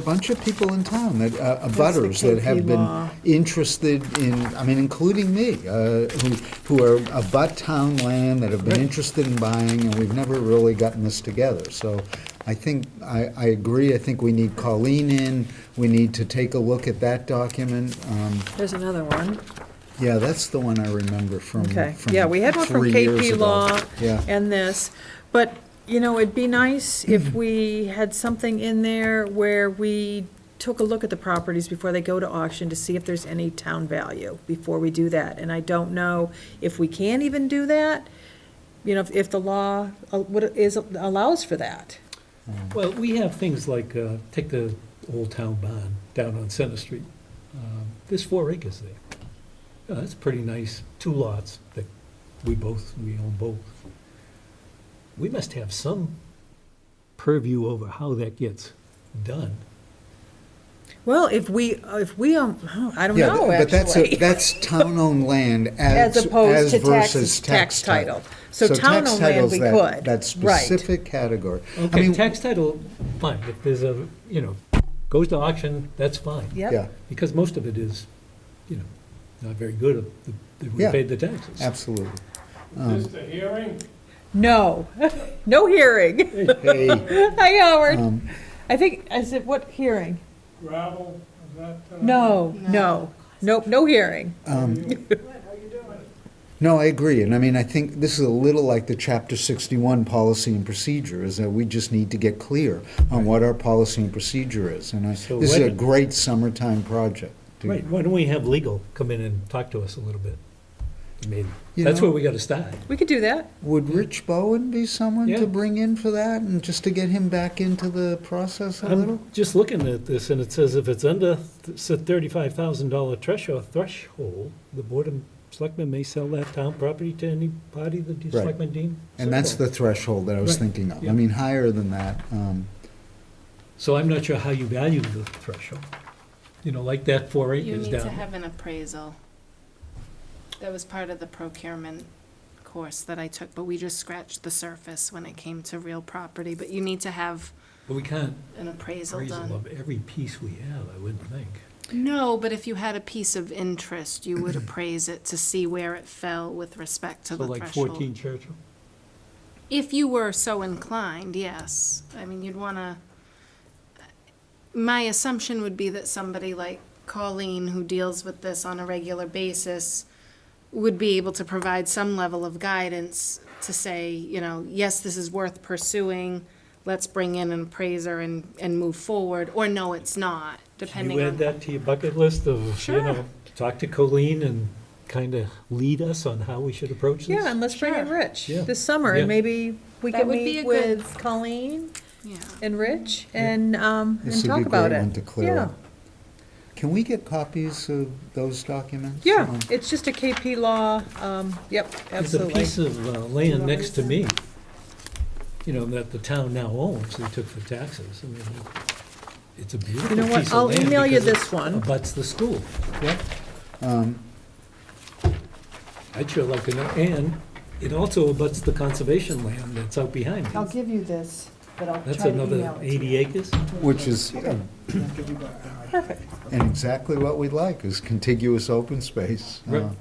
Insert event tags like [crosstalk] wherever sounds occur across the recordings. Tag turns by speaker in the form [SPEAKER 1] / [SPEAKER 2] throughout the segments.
[SPEAKER 1] a bunch of people in town that, uh,
[SPEAKER 2] the
[SPEAKER 1] butters that have
[SPEAKER 2] KP law.
[SPEAKER 1] been interested in, I mean, including me, uh, who, who are abut town land that have been interested in buying, and we've never really gotten this together. So I think, I, I agree, I think we need Colleen in, we need to take a look at that document. Um,
[SPEAKER 2] There's another one.
[SPEAKER 1] Yeah, that's the one I remember from,
[SPEAKER 2] Okay,
[SPEAKER 1] from
[SPEAKER 2] yeah, we had one Mm, from
[SPEAKER 1] three years
[SPEAKER 2] KP
[SPEAKER 1] ago.
[SPEAKER 2] Law
[SPEAKER 1] Yeah,
[SPEAKER 2] and this, but, you know, it'd be nice if we had something in there where we took a look at the properties before they go to auction to see if there's any town value before we do that. And I don't know if we can even do that, you know, if- if the law, uh, what is, allows for that.
[SPEAKER 3] Well, we have things like, uh, take the Old Town Barn down on Center Street. Um, There's four acres there. Uh, That's pretty nice, two lots that we both, we own both. We must have some purview over how that gets done.
[SPEAKER 2] Well, if we, if we, um, I don't
[SPEAKER 1] Yeah,
[SPEAKER 2] know, actually.
[SPEAKER 1] but that's, a-
[SPEAKER 2] [laughs]
[SPEAKER 1] that's town-owned land as,
[SPEAKER 2] As opposed
[SPEAKER 1] as
[SPEAKER 2] to
[SPEAKER 1] versus tax
[SPEAKER 2] tax,
[SPEAKER 1] title.
[SPEAKER 2] So
[SPEAKER 1] tax
[SPEAKER 2] town-owned land,
[SPEAKER 1] title's
[SPEAKER 2] we
[SPEAKER 1] that-
[SPEAKER 2] could.
[SPEAKER 1] That
[SPEAKER 2] Right.
[SPEAKER 1] specific category. I
[SPEAKER 3] Okay,
[SPEAKER 1] mean,
[SPEAKER 3] tax title, fine, if there's a, you know, goes to auction, that's fine.
[SPEAKER 1] Yeah,
[SPEAKER 2] Yep,
[SPEAKER 3] Because most of it is, you know, not very good, if we
[SPEAKER 1] Yeah.
[SPEAKER 3] paid the taxes.
[SPEAKER 1] absolutely.
[SPEAKER 4] Is this the hearing?
[SPEAKER 2] no, [laughs] no hearing.
[SPEAKER 1] Hey,
[SPEAKER 2] [laughs] Hi, Howard.
[SPEAKER 1] um,
[SPEAKER 2] I think, I said, what hearing?
[SPEAKER 4] Gravel, is that? uh,
[SPEAKER 2] No, no, nope, no hearing.
[SPEAKER 1] no, I agree, and I mean, I think this is a little like the Chapter 61 policy and procedure, is that we just need to get clear on what our policy and procedure is, and I,
[SPEAKER 3] So
[SPEAKER 1] this is a
[SPEAKER 3] when-
[SPEAKER 1] great summertime project. to-
[SPEAKER 3] Right, why don't we have legal come in and talk to us a little bit? I mean,
[SPEAKER 1] You
[SPEAKER 3] that's
[SPEAKER 1] know-
[SPEAKER 3] where we gotta start.
[SPEAKER 2] We could do that.
[SPEAKER 1] Would Rich Bowen be someone
[SPEAKER 3] Yeah.
[SPEAKER 1] to bring in for that, and just to get him back into the process a little?
[SPEAKER 3] I'm just looking at this, and it says if it's under th- thirty-five thousand dollar threshold, threshold, the board of selectmen may sell that town property to any party that the
[SPEAKER 1] Right.
[SPEAKER 3] selectmen deem.
[SPEAKER 1] And that's the
[SPEAKER 3] suitable.
[SPEAKER 1] threshold that I was
[SPEAKER 3] Right.
[SPEAKER 1] thinking of. I
[SPEAKER 3] Yeah.
[SPEAKER 1] mean, higher than that. um,
[SPEAKER 3] So I'm not sure how you value the threshold. You know, like that four
[SPEAKER 5] You
[SPEAKER 3] acres
[SPEAKER 5] need to
[SPEAKER 3] down.
[SPEAKER 5] have an appraisal. That was part of the procurement course that I took, but we just scratched the surface when it came to real property. But you need to have
[SPEAKER 3] But we can't
[SPEAKER 5] an appraisal
[SPEAKER 3] appraisal
[SPEAKER 5] done.
[SPEAKER 3] of every piece we have, I wouldn't think.
[SPEAKER 5] No, but if you had a piece of interest, you would appraise it to see where it fell with respect to
[SPEAKER 3] So
[SPEAKER 5] the
[SPEAKER 3] like
[SPEAKER 5] threshold.
[SPEAKER 3] fourteen Churchill?
[SPEAKER 5] If you were so inclined, yes. I mean, you'd wanna, my assumption would be that somebody like Colleen, who deals with this on a regular basis, would be able to provide some level of guidance to say, you know, yes, this is worth pursuing, let's bring in an appraiser and, and move forward, or no, it's
[SPEAKER 3] Can
[SPEAKER 5] not,
[SPEAKER 3] you
[SPEAKER 5] depending
[SPEAKER 3] add
[SPEAKER 5] on.
[SPEAKER 3] that to your bucket list of, you
[SPEAKER 5] Sure.
[SPEAKER 3] know, talk to Colleen and kind of lead us on how we should approach this?
[SPEAKER 2] Yeah, and let's bring in
[SPEAKER 5] Sure.
[SPEAKER 2] Rich
[SPEAKER 3] Yeah.
[SPEAKER 2] this summer,
[SPEAKER 3] Yeah.
[SPEAKER 2] and maybe we
[SPEAKER 5] That
[SPEAKER 2] can
[SPEAKER 5] would be
[SPEAKER 2] meet
[SPEAKER 5] a good-
[SPEAKER 2] with Colleen
[SPEAKER 5] Yeah.
[SPEAKER 2] and Rich and, um,
[SPEAKER 1] This
[SPEAKER 2] and
[SPEAKER 1] would be
[SPEAKER 2] talk
[SPEAKER 1] a
[SPEAKER 2] about
[SPEAKER 1] great
[SPEAKER 2] it.
[SPEAKER 1] one to clear
[SPEAKER 2] Yeah.
[SPEAKER 1] up. Can we get copies of those documents?
[SPEAKER 2] Yeah,
[SPEAKER 1] Um,
[SPEAKER 2] it's just a KP law, um, yep,
[SPEAKER 3] There's a
[SPEAKER 2] absolutely.
[SPEAKER 3] piece of uh, land next to me, you know, that the town now owns, they took for taxes. I mean, it's a beautiful
[SPEAKER 2] You know what,
[SPEAKER 3] piece of
[SPEAKER 2] I'll
[SPEAKER 3] land
[SPEAKER 2] email you
[SPEAKER 3] because it
[SPEAKER 2] this one.
[SPEAKER 3] Abuts the school.
[SPEAKER 1] Yeah.
[SPEAKER 3] I'd sure like to know, and it also abuts the conservation land that's out behind me.
[SPEAKER 2] give you this, but I'll
[SPEAKER 3] That's another eighty acres.
[SPEAKER 1] Which is, uh,
[SPEAKER 2] Perfect.
[SPEAKER 1] and exactly what we like, is contiguous open space. Uh,
[SPEAKER 3] Right.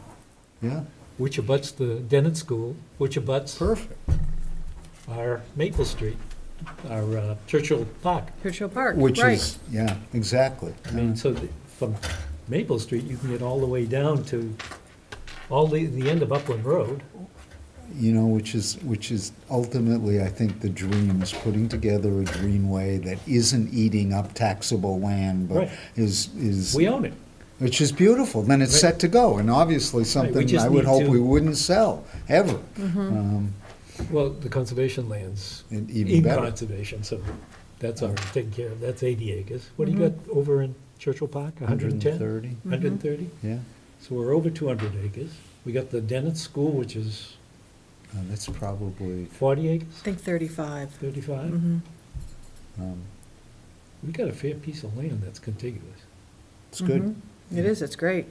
[SPEAKER 1] Yeah,
[SPEAKER 3] which abuts the Dennett School, which abuts
[SPEAKER 1] perfect.
[SPEAKER 3] our Maple Street, our uh, Churchill Park.
[SPEAKER 2] Churchill Park,
[SPEAKER 1] Which
[SPEAKER 2] right.
[SPEAKER 1] is, yeah, exactly.
[SPEAKER 3] I mean, so th- from Maple Street, you can get all the way down to all the, the end of Upland Road.
[SPEAKER 1] you know, which is, which is ultimately, I think, the dream, is putting together a greenway that isn't eating up taxable land, but
[SPEAKER 3] Right.
[SPEAKER 1] is, is.
[SPEAKER 3] We own it.
[SPEAKER 1] Which is beautiful, then it's
[SPEAKER 3] Right.
[SPEAKER 1] set to go, and obviously
[SPEAKER 3] we
[SPEAKER 1] something
[SPEAKER 3] just
[SPEAKER 1] I would
[SPEAKER 3] need
[SPEAKER 1] hope
[SPEAKER 3] to-
[SPEAKER 1] we wouldn't sell, ever. Um,
[SPEAKER 3] Well, the conservation land's
[SPEAKER 1] And even
[SPEAKER 3] in
[SPEAKER 1] better.
[SPEAKER 3] conservation, so that's already taken care of. That's 80 acres. What do you got over in Churchill Park? 110?
[SPEAKER 1] 130.
[SPEAKER 3] 130?
[SPEAKER 1] Yeah,
[SPEAKER 3] So we're over 200 acres. We got the Dennett School, which is
[SPEAKER 1] Uh, that's probably,
[SPEAKER 3] 40
[SPEAKER 2] I
[SPEAKER 3] acres,
[SPEAKER 2] think thirty-five.
[SPEAKER 3] 35.
[SPEAKER 2] Mhm.
[SPEAKER 1] um,
[SPEAKER 3] We got a fair piece of land that's contiguous.
[SPEAKER 1] it's good.
[SPEAKER 2] It is, it's great.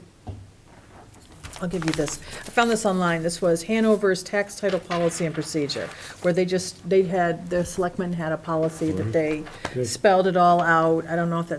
[SPEAKER 2] I'll give you this. I found this online. This was Hanover's Tax Title Policy and Procedure, where they just, they had, the selectmen had a policy that they
[SPEAKER 3] Good.
[SPEAKER 2] spelled it all out. I don't know if that's